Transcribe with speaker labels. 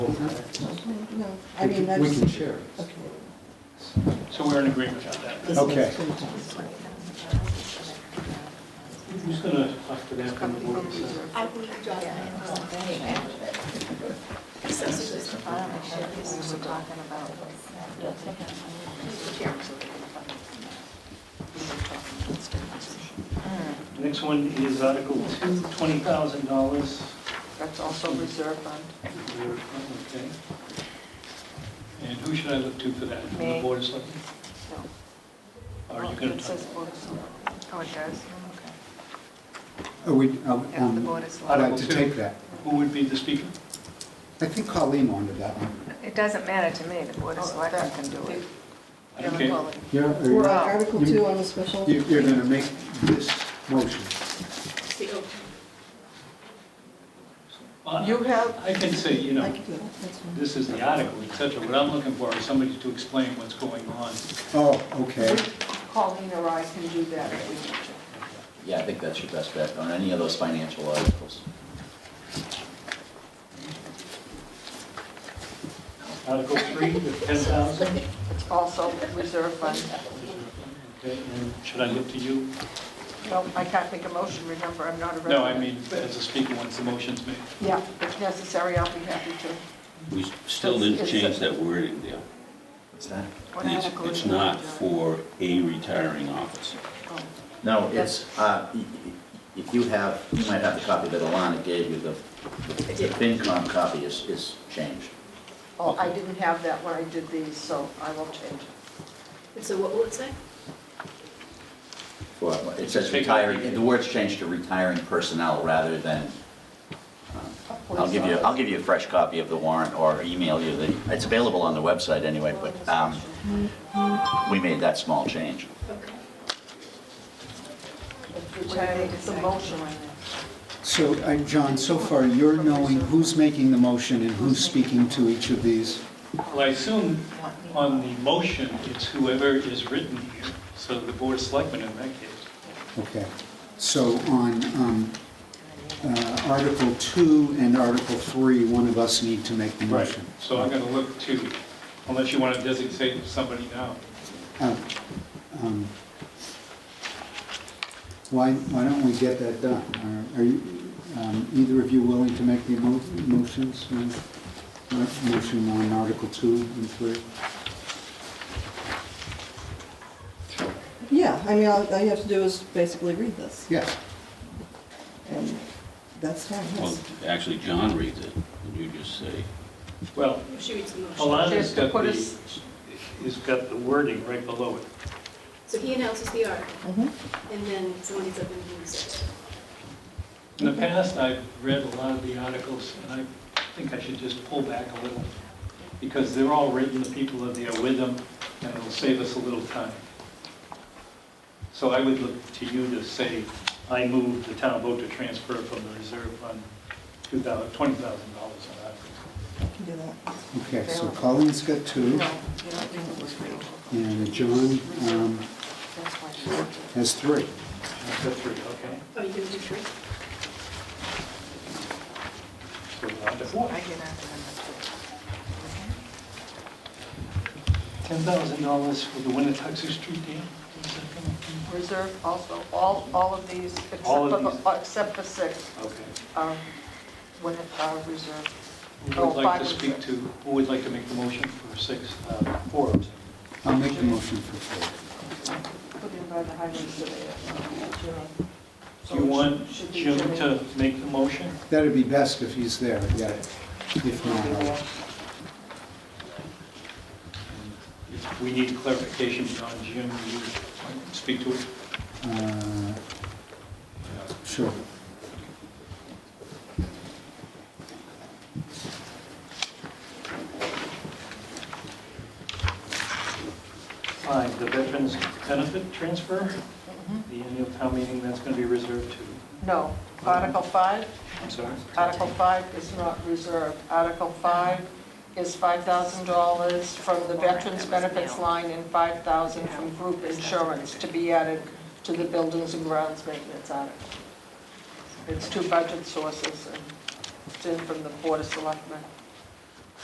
Speaker 1: So, I
Speaker 2: We
Speaker 1: mean,
Speaker 2: can-
Speaker 1: that's.
Speaker 2: We can share. it.
Speaker 1: Okay.
Speaker 3: So we're in agreement on that.
Speaker 1: This is
Speaker 2: Okay.
Speaker 1: good.
Speaker 3: Who's going to talk to that from the board?
Speaker 4: I will draw that.
Speaker 3: Next one is Article 2, $20,000.
Speaker 4: That's also reserve fund.
Speaker 3: Okay. And who should I look to for that? From The
Speaker 4: Me.
Speaker 3: board is looking?
Speaker 4: No.
Speaker 3: Are you going
Speaker 4: It
Speaker 3: to talk?
Speaker 4: says board of select. Oh, it does?
Speaker 2: Are we, um,
Speaker 4: Yeah, the board is
Speaker 2: I'd like
Speaker 3: Article
Speaker 2: to
Speaker 3: two.
Speaker 2: take that.
Speaker 3: Who would be the speaker?
Speaker 2: I think Colleen wanted that one.
Speaker 5: It doesn't matter to me, the
Speaker 4: Oh,
Speaker 5: Board of Selectmen can do it.
Speaker 3: I don't care.
Speaker 2: Yeah, are
Speaker 1: We're
Speaker 2: you-
Speaker 1: on Article
Speaker 2: you-
Speaker 1: two on the special.
Speaker 2: you- You're going to make this motion.
Speaker 3: Well,
Speaker 4: You have,
Speaker 3: Uh, I can say, you
Speaker 1: I
Speaker 3: know,
Speaker 1: can do that, that's fine.
Speaker 3: this is the article, et cetera. What I'm looking for is somebody to explain what's going on.
Speaker 2: Oh, okay.
Speaker 4: Colleen or I can do that if we need to.
Speaker 6: Yeah, I think that's your best bet on any of those financial articles.
Speaker 3: Article 3, the $10,000.
Speaker 4: Also reserve fund.
Speaker 3: Okay, and Should I look to you?
Speaker 4: No, I can't make a motion, remember, I'm not a resident.
Speaker 3: No, I mean, as a speaker, once the motion's made.
Speaker 4: Yeah, if necessary, I'll be happy to.
Speaker 7: We still didn't change that wording there.
Speaker 6: What's that?
Speaker 4: What
Speaker 7: It's,
Speaker 4: article is
Speaker 7: it's
Speaker 4: it?
Speaker 7: not for a retiring officer.
Speaker 4: Oh.
Speaker 6: No, it's, uh, y- y- if you have, you might have the copy that Alana gave you, the the FinCom copy is, is changed.
Speaker 4: Oh, I didn't have that when I did these, so I will change it.
Speaker 8: So what will it say?
Speaker 6: Well, It says retiring, the word's changed to retiring personnel rather than, I'll give you, I'll give you a fresh copy of the warrant or email you the, it's available on the website anyway, but um, we made that small change.
Speaker 8: Okay.
Speaker 4: Which I think is a motion.
Speaker 2: So, uh, John, so far, you're knowing who's making the motion and who's speaking to each of these.
Speaker 3: Well, I assume on the motion, it's whoever is written here, so the board of selectmen in that case.
Speaker 2: Okay. So on um, uh, Article 2 and Article 3, one of us need to make the motion.
Speaker 3: So I'm going to look to, unless you want to designate somebody now.
Speaker 2: Uh, um, Why, why don't we get that done? Are- Are you, um, either of you willing to make the mo- motions? uh, mo- Motion on Article 2 and 3?
Speaker 1: Yeah, I mean, all all you have to do is basically read this,
Speaker 2: Yes.
Speaker 1: and that's fine,
Speaker 7: Well,
Speaker 1: yes.
Speaker 7: actually, John reads it, and you just say,
Speaker 3: Well,
Speaker 8: She reads the motion.
Speaker 3: Alana's
Speaker 4: Just
Speaker 3: got
Speaker 4: put
Speaker 3: the,
Speaker 4: us-
Speaker 3: has got the wording right below it.
Speaker 8: So he announces the article,
Speaker 1: Mhm.
Speaker 8: and then someone gets up and reads
Speaker 3: In the past, I've read a lot of the articles, and I think I should just pull back a little, because they're all written, the people are there with them, and it'll save us a little time. So I would look to you to say, I move the town vote to transfer from the reserve fund $2,000 $20,000 on articles.
Speaker 1: I can do that.
Speaker 2: Okay, so Colleen's got two,
Speaker 4: No, you don't think it was real.
Speaker 2: and John um,
Speaker 4: That's why she did it.
Speaker 2: has three.
Speaker 3: That's the three, okay?
Speaker 8: it. Oh, you can do three?
Speaker 3: So we're on to four.
Speaker 4: I get out
Speaker 3: $10,000 for the Winnetoxer Street dam? Is that coming?
Speaker 4: of Reserve also, all, all of these, except
Speaker 3: All of
Speaker 4: for,
Speaker 3: these.
Speaker 4: the- uh, except for six,
Speaker 3: Okay.
Speaker 4: are, when it, are reserved.
Speaker 3: Who would
Speaker 4: Oh,
Speaker 3: like to
Speaker 4: five and
Speaker 3: speak
Speaker 4: six.
Speaker 3: to, who would like to make the motion for six, uh, four? I'm sorry.
Speaker 2: I'll make the motion for four.
Speaker 4: Put in by the highway surveyor. Jimmy. So
Speaker 3: Do you
Speaker 4: it
Speaker 3: want
Speaker 4: should be
Speaker 3: Jim
Speaker 4: Jimmy.
Speaker 3: to make the motion?
Speaker 2: That'd be best if he's there, yeah. If not, I'll-
Speaker 3: If we need clarification on Jim, you speak to it.
Speaker 2: Uh, Sure.
Speaker 3: Five, the veterans benefit transfer, the annual town meeting, that's going to be reserved to,
Speaker 4: No, Article 5,
Speaker 3: I'm sorry?
Speaker 4: Article 5 is not reserved. Article 5 is $5,000 from the Veterans Benefits line and 5,000 from group insurance to be added to the Buildings and Grounds Maintenance article. It's two budget sources, and it's in from the Board of Selectmen.